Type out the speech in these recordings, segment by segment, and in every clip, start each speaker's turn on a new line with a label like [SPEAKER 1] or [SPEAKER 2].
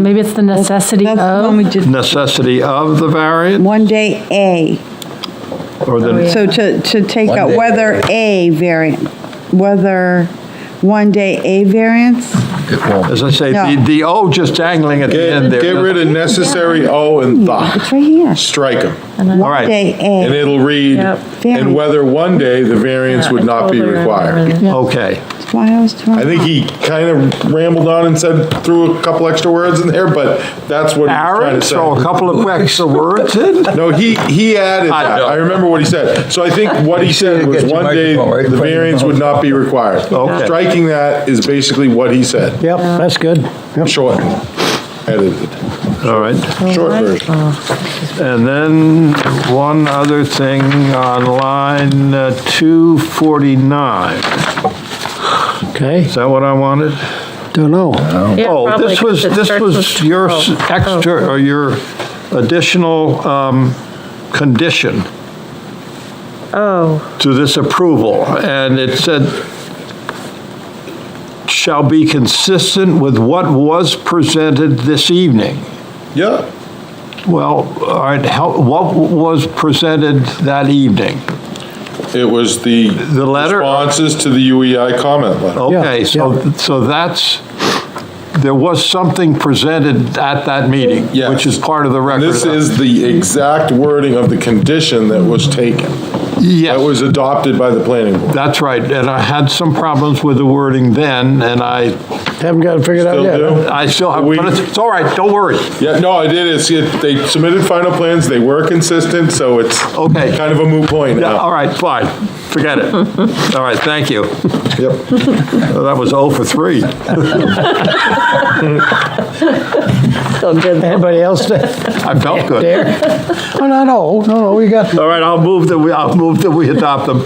[SPEAKER 1] Maybe it's the necessity
[SPEAKER 2] That's the one
[SPEAKER 1] of,
[SPEAKER 2] we did,
[SPEAKER 3] necessity of the variant
[SPEAKER 2] one day A.
[SPEAKER 3] or the,
[SPEAKER 2] So to, to take
[SPEAKER 4] One
[SPEAKER 2] out
[SPEAKER 4] day.
[SPEAKER 2] whether A variant, whether one day A variance?
[SPEAKER 4] It won't.
[SPEAKER 3] as I say, the,
[SPEAKER 2] No.
[SPEAKER 3] the O just dangling at the end
[SPEAKER 5] Get,
[SPEAKER 3] there.
[SPEAKER 5] get rid of necessary O and
[SPEAKER 2] It's
[SPEAKER 5] the,
[SPEAKER 2] right here.
[SPEAKER 5] strike them.
[SPEAKER 3] All right.
[SPEAKER 2] Day
[SPEAKER 5] And
[SPEAKER 2] A,
[SPEAKER 5] it'll read,
[SPEAKER 1] Yep.
[SPEAKER 5] and whether one day the variance would not be required.
[SPEAKER 3] Okay,
[SPEAKER 2] that's why I was
[SPEAKER 5] I
[SPEAKER 2] trying.
[SPEAKER 5] think he kind of rambled on and said, threw a couple extra words in there, but that's what he
[SPEAKER 3] Aaron,
[SPEAKER 5] was
[SPEAKER 3] throw a
[SPEAKER 5] trying to say.
[SPEAKER 3] couple of extra words in.
[SPEAKER 5] No, he, he added
[SPEAKER 3] I
[SPEAKER 5] that.
[SPEAKER 3] know.
[SPEAKER 5] I remember what he said. So I think what he said was
[SPEAKER 4] Get your
[SPEAKER 5] one day
[SPEAKER 4] microphone right in
[SPEAKER 5] the
[SPEAKER 4] front of your
[SPEAKER 5] variance would not be required.
[SPEAKER 3] Okay.
[SPEAKER 5] Striking that is basically what he said.
[SPEAKER 6] Yep, that's good.
[SPEAKER 5] Short, edited,
[SPEAKER 3] All right.
[SPEAKER 5] short version.
[SPEAKER 3] And then one other thing on line uh, 249.
[SPEAKER 6] Okay,
[SPEAKER 3] Is that what I wanted?
[SPEAKER 6] don't know.
[SPEAKER 3] Oh, this was, this was your s- extra, or your additional um, condition
[SPEAKER 1] Oh,
[SPEAKER 3] to this approval, and it said, shall be consistent with what was presented this evening.
[SPEAKER 5] Yeah.
[SPEAKER 3] Well, all right, how, what was presented that evening?
[SPEAKER 5] It was the.
[SPEAKER 3] The letter? Oh.
[SPEAKER 5] Responses to the UEI comment letter.
[SPEAKER 3] Okay,
[SPEAKER 6] Yeah,
[SPEAKER 3] so, so that's, there was something presented at that meeting,
[SPEAKER 5] Yes.
[SPEAKER 3] which is part of the record.
[SPEAKER 5] This is the exact wording of the condition that was taken, that
[SPEAKER 3] Yes,
[SPEAKER 5] was adopted by the planning board.
[SPEAKER 3] that's right, and I had some problems with the wording then, and I,
[SPEAKER 6] Haven't got it figured out
[SPEAKER 5] Still
[SPEAKER 6] yet. huh?
[SPEAKER 5] do?
[SPEAKER 3] I still have, but it's, it's all right, don't worry.
[SPEAKER 5] Yeah, no, I did, it's, it- they submitted final plans, they were consistent, so it's
[SPEAKER 3] Okay.
[SPEAKER 5] kind of a moot point
[SPEAKER 3] Yeah,
[SPEAKER 5] now.
[SPEAKER 3] all right, fine, forget it. All right, thank you.
[SPEAKER 5] Yep.
[SPEAKER 3] Well, That was 0 for 3.
[SPEAKER 1] still good.
[SPEAKER 6] Anybody else there?
[SPEAKER 3] I felt good.
[SPEAKER 6] Oh, no, no, no, no, we got,
[SPEAKER 3] All right, I'll move that we, I'll move that we adopt them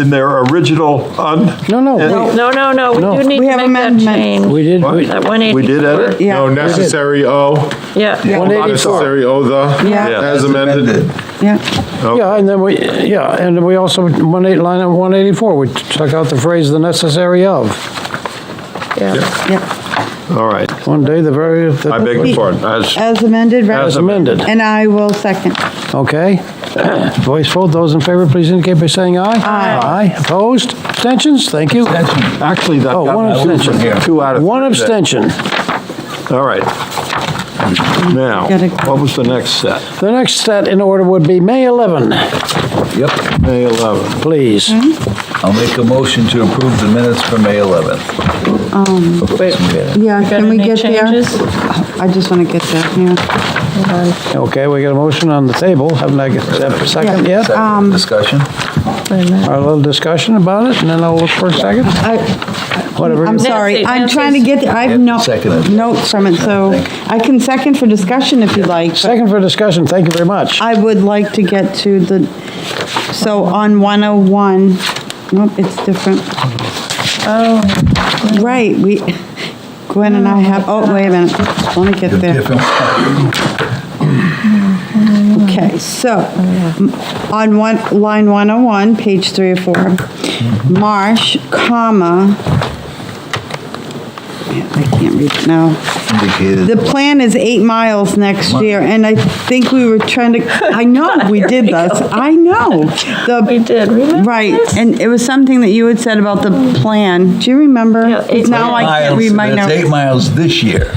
[SPEAKER 3] in their original un.
[SPEAKER 6] no, no,
[SPEAKER 1] No, no, no, we do need
[SPEAKER 2] We
[SPEAKER 1] to
[SPEAKER 2] have
[SPEAKER 1] make that
[SPEAKER 2] amendments.
[SPEAKER 6] we- we
[SPEAKER 1] change.
[SPEAKER 6] did, we-
[SPEAKER 1] That 184.
[SPEAKER 3] We did edit?
[SPEAKER 2] Yeah.
[SPEAKER 5] No, necessary O,
[SPEAKER 1] Yeah,
[SPEAKER 6] One eighty-
[SPEAKER 5] necessary O the,
[SPEAKER 2] Yeah.
[SPEAKER 3] Yeah.
[SPEAKER 5] as amended.
[SPEAKER 2] Yeah,
[SPEAKER 6] yeah, and then we, yeah, and then we also, one eight, line of 184, we took out the phrase "the necessary of."
[SPEAKER 1] yeah.
[SPEAKER 2] yeah.
[SPEAKER 3] All right,
[SPEAKER 6] One day, the very,
[SPEAKER 3] I beg your pardon. As-
[SPEAKER 2] As amended, right?
[SPEAKER 6] as amended,
[SPEAKER 2] And I will second.
[SPEAKER 6] okay? Voice vote, those in favor, please indicate by saying aye.
[SPEAKER 2] Aye.
[SPEAKER 6] Aye, opposed, abstentions, thank you.
[SPEAKER 3] Actually, that
[SPEAKER 6] Oh, one
[SPEAKER 3] got me
[SPEAKER 6] abstention.
[SPEAKER 3] two out of. three
[SPEAKER 6] One
[SPEAKER 3] there.
[SPEAKER 6] abstention.
[SPEAKER 3] All right. Now,
[SPEAKER 2] Gotta-
[SPEAKER 3] what was the next set?
[SPEAKER 6] The next set in order would be May 11,
[SPEAKER 4] Yep,
[SPEAKER 3] May 11.
[SPEAKER 6] please.
[SPEAKER 4] I'll make a motion to approve the minutes for May Oh, 11th.
[SPEAKER 2] Um,
[SPEAKER 4] Wait.
[SPEAKER 2] Yeah,
[SPEAKER 1] Got
[SPEAKER 2] can we
[SPEAKER 1] any
[SPEAKER 2] get uh, there?
[SPEAKER 1] changes?
[SPEAKER 2] I just want to get there, yeah.
[SPEAKER 6] Okay, we got a motion on the table, haven't I got a second
[SPEAKER 2] Uh,
[SPEAKER 6] yet?
[SPEAKER 2] um,
[SPEAKER 4] Discussion?
[SPEAKER 6] Our little discussion about it, and then I'll look for a second,
[SPEAKER 2] I-
[SPEAKER 6] whatever.
[SPEAKER 2] I'm sorry, I'm
[SPEAKER 1] Nancy,
[SPEAKER 2] trying to get, I have no,
[SPEAKER 4] Seconded.
[SPEAKER 2] notes from it, so I can second for discussion if you'd like. but-
[SPEAKER 6] Second for discussion, thank you very much.
[SPEAKER 2] I would like to get to the, so on 101, nope, it's different. Oh. Right, we, Gwen and I have, oh, wait a minute, let me get there.
[SPEAKER 4] Different.
[SPEAKER 2] Okay, so, on one, line 101, page three or four, Marsh, comma, yeah, I can't read it now.
[SPEAKER 4] Indicated.
[SPEAKER 2] The plan is eight miles next year, and I think we were trying to, I know, we did this, I know.
[SPEAKER 1] We
[SPEAKER 2] The
[SPEAKER 1] did, remember?
[SPEAKER 2] Right, and it was something that you had said about the plan, do you remember?
[SPEAKER 1] Yeah, eight
[SPEAKER 2] Now I can't read my
[SPEAKER 4] That's eight
[SPEAKER 2] notes.
[SPEAKER 4] miles this year.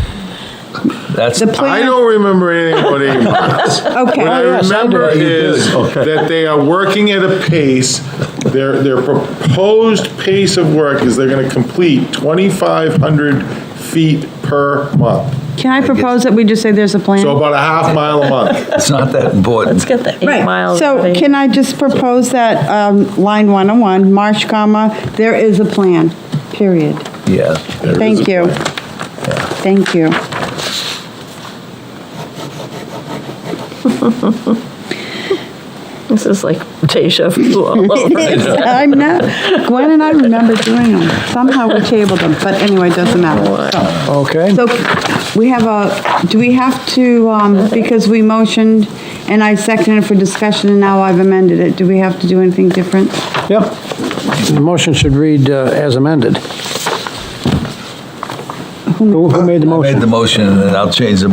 [SPEAKER 4] That's,
[SPEAKER 2] The
[SPEAKER 5] I
[SPEAKER 2] plan,
[SPEAKER 5] don't remember anything but eight miles. What I
[SPEAKER 2] okay,
[SPEAKER 6] yes, I do.
[SPEAKER 5] remember
[SPEAKER 4] You
[SPEAKER 5] is
[SPEAKER 4] did.
[SPEAKER 5] that they are working at a pace, their, their proposed pace of work is they're gonna complete 2,500 feet per month.
[SPEAKER 2] can I propose that we just say there's a plan?
[SPEAKER 5] So about a half mile a month.
[SPEAKER 4] it's not that important.
[SPEAKER 1] Let's get the eight
[SPEAKER 2] Right,
[SPEAKER 1] miles.
[SPEAKER 2] so
[SPEAKER 1] thing.
[SPEAKER 2] can I just propose that, um, line 101, Marsh, comma, there is a plan, period.
[SPEAKER 4] Yeah.
[SPEAKER 5] There is
[SPEAKER 2] Thank
[SPEAKER 5] a
[SPEAKER 2] you.
[SPEAKER 5] plan.
[SPEAKER 2] Thank you.
[SPEAKER 1] This is like deja vu all over.
[SPEAKER 2] I'm not, Gwen and I remember doing them. Somehow we tabled them, but anyway, it doesn't matter. So-
[SPEAKER 6] Okay,
[SPEAKER 2] So we have a, do we have to, um, because we motioned and I seconded for discussion and now I've amended it, do we have to do anything different?
[SPEAKER 6] yep. The motion should read uh, as amended. Who who made the
[SPEAKER 4] I
[SPEAKER 6] motion?
[SPEAKER 4] made the motion, and I'll change the